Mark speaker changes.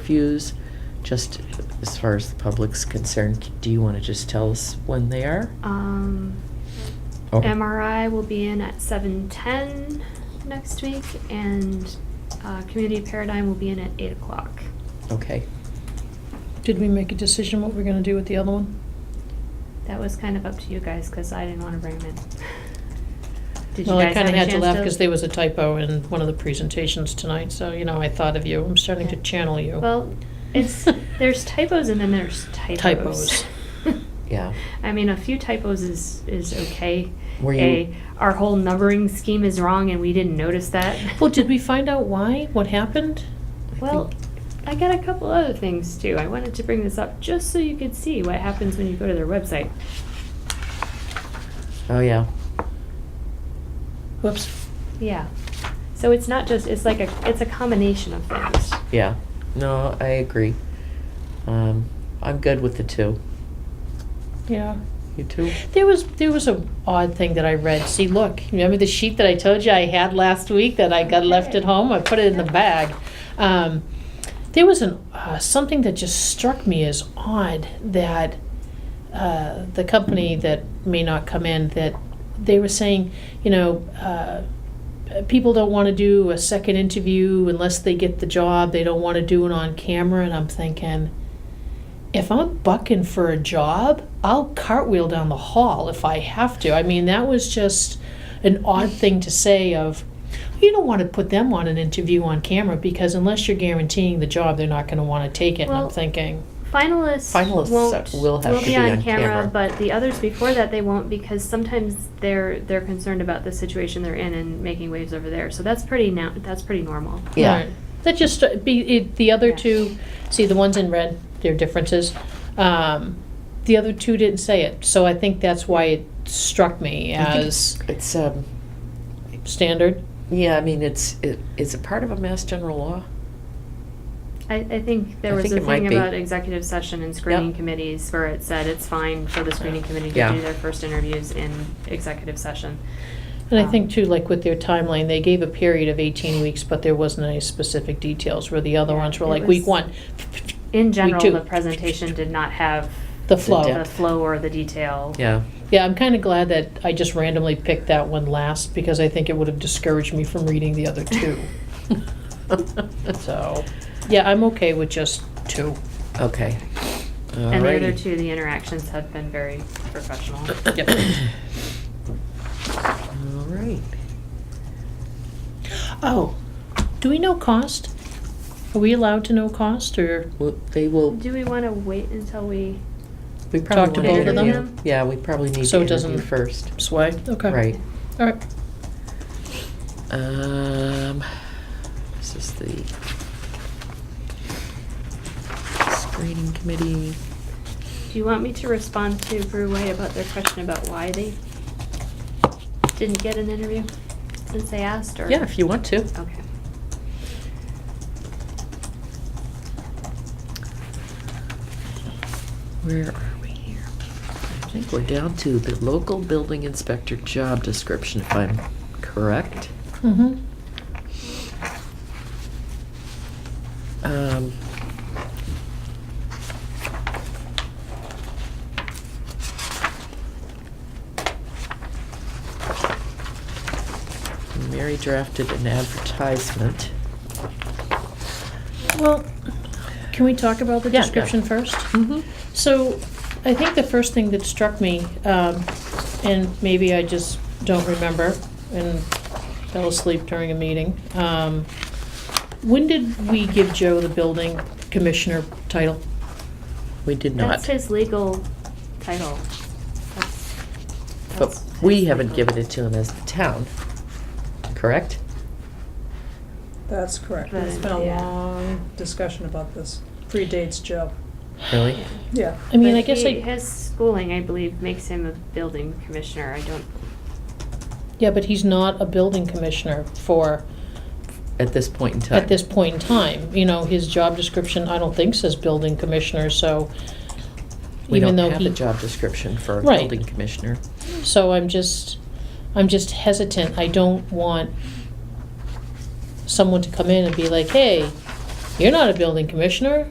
Speaker 1: interviews, just as far as the public's concerned, do you want to just tell us when they are?
Speaker 2: Um,
Speaker 1: Oh.
Speaker 2: MRI will be in at seven ten next week, and uh, Community Paradigm will be in at eight o'clock.
Speaker 1: Okay,
Speaker 3: Did we make a decision what we're gonna do with the other one?
Speaker 2: That was kind of up to you guys because I didn't want to bring them in. Did you
Speaker 3: Well, I
Speaker 2: guys have
Speaker 3: kinda
Speaker 2: a
Speaker 3: had to
Speaker 2: chance
Speaker 3: laugh
Speaker 2: to-
Speaker 3: because there was a typo in one of the presentations tonight, so, you know, I thought of you. I'm starting to
Speaker 2: Yeah.
Speaker 3: channel you.
Speaker 2: Well, it's there's typos and then there's typos.
Speaker 3: Typos.
Speaker 1: yeah.
Speaker 2: I mean, a few typos is is okay.
Speaker 1: Were you-
Speaker 2: A, our whole numbering scheme is wrong, and we didn't notice that.
Speaker 3: Well, did we find out why? What happened?
Speaker 2: Well, I got a couple other things too. I wanted to bring this up just so you could see what happens when you go to their website.
Speaker 1: Oh, yeah.
Speaker 3: Whoops.
Speaker 2: Yeah. So it's not just it's like a it's a combination of things.
Speaker 1: Yeah. No, I agree. Um, I'm good with the two.
Speaker 3: Yeah.
Speaker 1: You two?
Speaker 3: There was, there was a odd thing that I read. See, look, remember the sheet that I told you I had last week that I got left at home? I put it in the bag. Um, there was an, uh, something that just struck me as odd that uh, the company that may not come in, that they were saying, you know, uh, people don't want to do a second interview unless they get the job. They don't want to do it on camera. And I'm thinking, if I'm bucking for a job, I'll cartwheel down the hall if I have to. I mean, that was just an odd thing to say of you don't want to put them on an interview on camera because unless you're guaranteeing the job, they're not going to want to take it. and
Speaker 2: Well,
Speaker 3: I'm thinking,
Speaker 2: Finalists,
Speaker 1: Finalists
Speaker 2: won't,
Speaker 1: will have to
Speaker 2: be, on, camera,
Speaker 1: camera.
Speaker 2: but the others before that they won't because sometimes they're they're concerned about the situation they're in and making waves over there. So that's pretty now that's pretty normal.
Speaker 1: Yeah.
Speaker 3: Right. That just, uh, be, it, the other
Speaker 2: Yeah.
Speaker 3: two, see, the ones in red, their differences. Um, the other two didn't say it, so I think that's why it struck me
Speaker 1: I think
Speaker 3: as
Speaker 1: It's, um,
Speaker 3: standard.
Speaker 1: yeah, I mean, it's, it, is it part of a mass general law?
Speaker 2: I, I think there
Speaker 1: I
Speaker 2: was
Speaker 1: think
Speaker 2: a
Speaker 1: it might
Speaker 2: thing
Speaker 1: be.
Speaker 2: about executive session and screening
Speaker 1: Yep.
Speaker 2: committees where it said it's fine for the screening committee to
Speaker 1: Yeah.
Speaker 2: do their first interviews in executive session.
Speaker 3: And I
Speaker 2: Um,
Speaker 3: think too, like with their timeline, they gave a period of eighteen weeks, but there wasn't any specific details, where the other
Speaker 2: Yeah,
Speaker 3: ones were
Speaker 2: it
Speaker 3: like, week
Speaker 2: was-
Speaker 3: one,
Speaker 2: In
Speaker 3: We
Speaker 2: general,
Speaker 3: do.
Speaker 2: the presentation did not have
Speaker 3: the flow.
Speaker 2: the
Speaker 1: depth.
Speaker 2: flow or the detail.
Speaker 1: Yeah.
Speaker 3: Yeah, I'm kinda glad that I just randomly picked that one last, because I think it would have discouraged me from reading the other two. So, yeah, I'm okay with just two.
Speaker 1: Okay.
Speaker 2: And the other
Speaker 1: Alrighty.
Speaker 2: two, the interactions have been very professional.
Speaker 3: Yep.
Speaker 1: All right.
Speaker 3: Oh, do we know cost? Are we allowed to know cost, or,
Speaker 1: Well, they will,
Speaker 2: Do we want to wait until we?
Speaker 1: we probably
Speaker 3: Talk to
Speaker 1: want to
Speaker 2: both of them?
Speaker 1: interview. Yeah, we probably need
Speaker 3: So
Speaker 1: to
Speaker 3: it doesn't-
Speaker 1: interview first.
Speaker 3: sway? Okay.
Speaker 1: Right.
Speaker 3: All right.
Speaker 1: Um, this is the screening committee.
Speaker 2: Do you want me to respond to Bruway about their question about why they didn't get an interview since they asked, or?
Speaker 1: Yeah, if you want to.
Speaker 2: Okay.
Speaker 1: Where are we here? I think we're down to the local building inspector job description, if I'm correct.
Speaker 3: Mm-hmm.
Speaker 1: Um, Mary drafted an advertisement.
Speaker 3: Well, can we talk about the
Speaker 1: Yeah, yeah.
Speaker 3: description first?
Speaker 1: Mm-hmm.
Speaker 3: So, I think the first thing that struck me, um, and maybe I just don't remember, and fell asleep during a meeting. um, When did we give Joe the building commissioner title?
Speaker 1: We did
Speaker 2: That's
Speaker 1: not,
Speaker 2: his legal title. That's-
Speaker 1: but
Speaker 2: that's
Speaker 1: we
Speaker 2: his
Speaker 1: haven't
Speaker 2: legal-
Speaker 1: given it to him as the town, correct?
Speaker 4: That's correct.
Speaker 2: Right,
Speaker 4: There's been a
Speaker 2: yeah.
Speaker 4: long discussion about this. Predates Joe.
Speaker 1: Really?
Speaker 2: Yeah.
Speaker 4: Yeah.
Speaker 3: I mean,
Speaker 2: But
Speaker 3: I guess
Speaker 2: he-
Speaker 3: I,
Speaker 2: His schooling, I believe, makes him a building commissioner. I don't,
Speaker 3: yeah, but he's not a building commissioner for
Speaker 1: At this point in time?
Speaker 3: at this point in time. You know, his job description, I don't think says building commissioner, so
Speaker 1: We
Speaker 3: even
Speaker 1: don't
Speaker 3: though
Speaker 1: have
Speaker 3: he,
Speaker 1: a job description for a
Speaker 3: Right.
Speaker 1: building commissioner.
Speaker 3: so I'm just, I'm just hesitant. I don't want someone to come in and be like, hey, You're not a building commissioner.